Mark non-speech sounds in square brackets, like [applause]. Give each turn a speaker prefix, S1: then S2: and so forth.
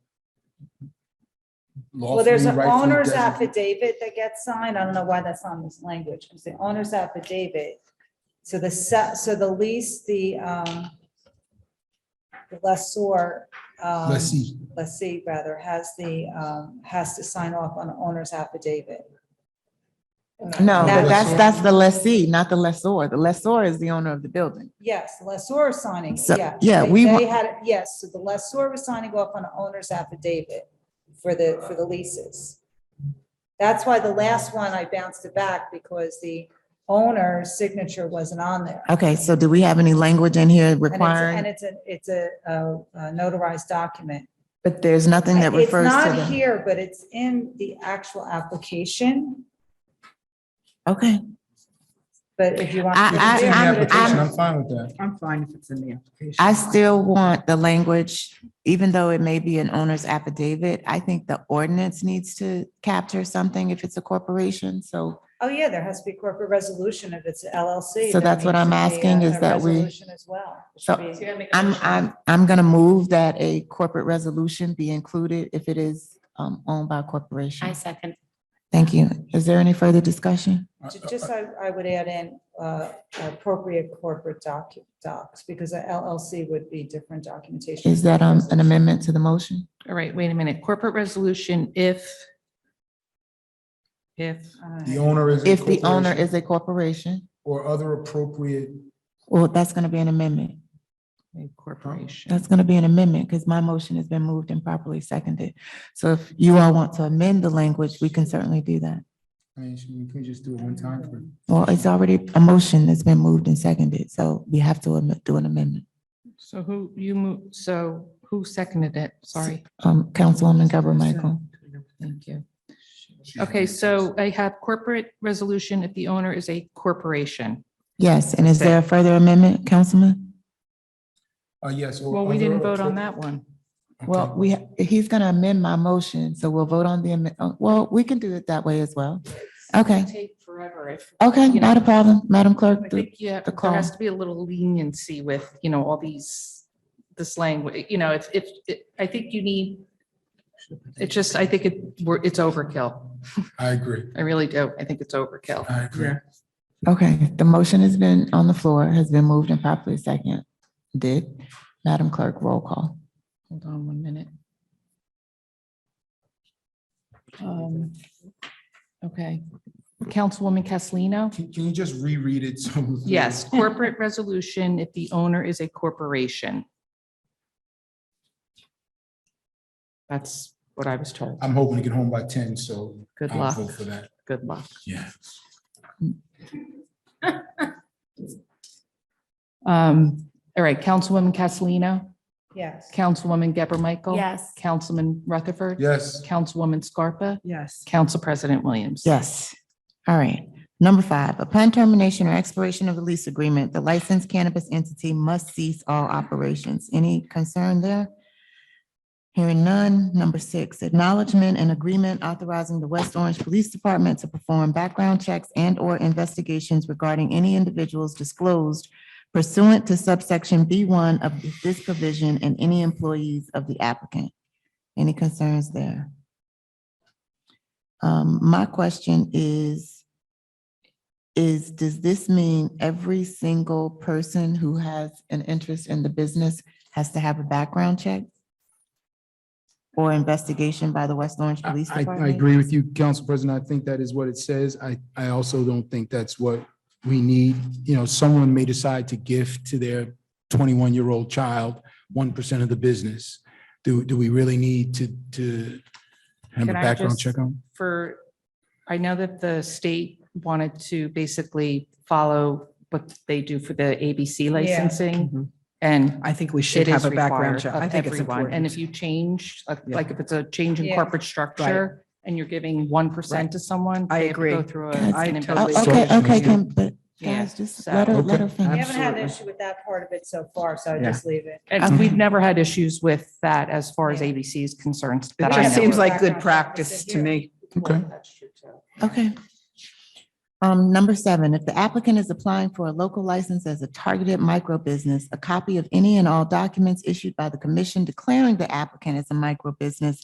S1: law
S2: Well, there's
S1: free,
S2: an
S1: right free
S2: owner's
S1: designation.
S2: affidavit that gets signed. I don't know why that's on this language. It's the owner's affidavit. So the se- so the lease, the, um, the lessor, um,
S1: Lessee.
S2: lessee rather, has the, um, has to sign off on the owner's affidavit.
S3: No,
S2: That-
S3: but that's, that's the lessee, not the lessor. The lessor is the owner of the building.
S2: Yes, the lessor is signing,
S3: So,
S2: yeah.
S3: yeah,
S2: They-
S3: we
S2: They
S3: want-
S2: had, yes, so the lessor was signing off on the owner's affidavit for the, for the leases. That's why the last one I bounced it back because the owner's signature wasn't on there.
S3: Okay, so do we have any language in here
S2: And it's, and
S3: requiring,
S2: it's a, it's a uh, a notarized document.
S3: but there's nothing that
S2: It's
S3: refers to
S2: not
S3: the,
S2: here, but it's in the actual application,
S3: okay.
S2: but if you want.
S3: I-
S1: If
S3: I-
S1: it's in the
S3: I'm-
S1: application,
S3: I'm-
S1: I'm fine with that.
S4: I'm fine if it's in the application.
S3: I still want the language, even though it may be an owner's affidavit, I think the ordinance needs to capture something if it's a corporation, so.
S2: Oh, yeah, there has to be corporate resolution if it's LLC.
S3: So
S2: there
S3: that's what I'm
S2: needs to be a-
S3: asking is
S2: a
S3: that we-
S2: resolution As well. It
S3: So
S2: should be-
S3: I'm, I'm, I'm gonna move that a corporate resolution be included if it is um, owned by a corporation.
S5: second.
S3: Thank you. Is there any further discussion?
S4: Uh,
S2: Ju- Just I, I would add in uh, appropriate corporate doc, docs, because a LLC would be different documentation.
S3: Is that um, an amendment to the motion?
S5: All right, wait a minute. Corporate resolution if, if,
S2: Uh,
S1: The owner is. a
S3: If the owner
S1: corporation
S3: is a corporation,
S1: Or other appropriate,
S3: well, that's gonna be an amendment.
S5: a corporation.
S3: That's gonna be an amendment because my motion has been moved and properly seconded. So if you all want to amend the language, we can certainly do that.
S1: I mean, should we can we just do it one time for.
S3: Well, it's already, a motion that's been moved and seconded, so we have to am- do an amendment.
S5: So who, you move, so who seconded it? Sorry.
S3: Um, Councilwoman Deborah Michael.
S5: Thank you. Okay, so I have corporate resolution if the owner is a corporation.
S3: Yes, and is there a further amendment, Councilman?
S1: Uh, yes. or
S5: Well, we
S1: other
S5: didn't vote on
S1: appro-
S5: that one.
S3: Well,
S1: Okay.
S3: we, he's gonna amend my motion, so we'll vote on the, amend- oh, well, we can do it that way as well. Okay.
S5: Take forever if.
S3: Okay,
S5: you know,
S3: not a problem, Madam
S5: I
S3: Clerk. do-
S5: think, yeah,
S3: the
S5: there has
S3: call.
S5: to be a little leniency with, you know, all these, this language, you know, it's, it's, it- I think you need, it's just, I think it, we're, it's overkill.
S1: I agree,
S5: I really do. I think it's overkill.
S1: I agree.
S3: Okay, the motion has been on the floor, has been moved and properly seconded. Madam Clerk, roll call.
S5: Hold on one minute. Um, Okay, Councilwoman Castellino?
S1: Can, can you just reread it? [laughs] so we-
S5: Yes, corporate resolution if the owner is a corporation. That's what I was told.
S1: I'm hoping to get home by ten, so.
S5: Good
S1: I'll
S5: luck,
S1: vote For that,
S5: good luck.
S1: yeah.
S5: Um, all right, Councilwoman Castellino,
S2: Yes.
S5: Councilwoman Geber Michael.
S6: Yes.
S5: Councilman Rutherford.
S1: Yes,
S5: Councilwoman Scarpa,
S4: Yes.
S5: Council President Williams.
S3: Yes. All right. Number five, upon termination or expiration of the lease agreement, the licensed cannabis entity must cease all operations. Any concern there? Hearing none. Number six, acknowledgement and agreement authorizing the West Orange Police Department to perform background checks and/or investigations regarding any individuals disclosed pursuant to subsection B one of this provision and any employees of the applicant. Any concerns there? Um, my question is, is, does this mean every single person who has an interest in the business has to have a background check? Or investigation by the West Orange
S1: I,
S3: Police
S1: I- I
S3: Department?
S1: agree with you, Council President. I think that is what it says. I, I also don't think that's what we need. You know, someone may decide to gift to their twenty-one-year-old child one percent of the business. Do, do we really need to, to have a
S5: Can I
S1: background
S5: just-
S1: check on?
S5: For, I know that the state wanted to basically follow what they do for the ABC licensing. And
S4: I think we should
S5: it
S4: have
S5: is
S4: a background
S5: required
S4: check. I
S5: of
S4: think it's
S5: everyone.
S4: important.
S5: And if you change, like-
S4: Yeah.
S5: like if it's a change in
S2: Yeah.
S5: corporate structure and you're giving 1% to someone.
S4: I
S5: they have to Go
S4: agree.
S5: through a-
S3: Guys,
S5: an
S4: I
S3: Oh,
S4: totally
S5: investigation.
S3: Okay,
S1: So-
S3: okay, Kim, but
S5: Yeah,
S3: guys, just
S5: so-
S3: let her, let her
S1: Okay.
S2: We
S3: finish.
S2: haven't had an
S4: Absolutely.
S2: issue with that part of it so far, so I
S4: Yeah.
S2: just leave it.
S5: And
S3: Okay.
S5: we've never had issues with that as far as
S2: Yeah.
S5: ABC is concerned.
S4: It
S5: that I
S4: just
S5: know
S4: seems
S5: of.
S4: like good practice to me.
S1: Okay,
S3: Okay. Um, number seven, if the applicant is applying for a local license as a targeted micro business, a copy of any and all documents issued by the commission declaring the applicant as a micro business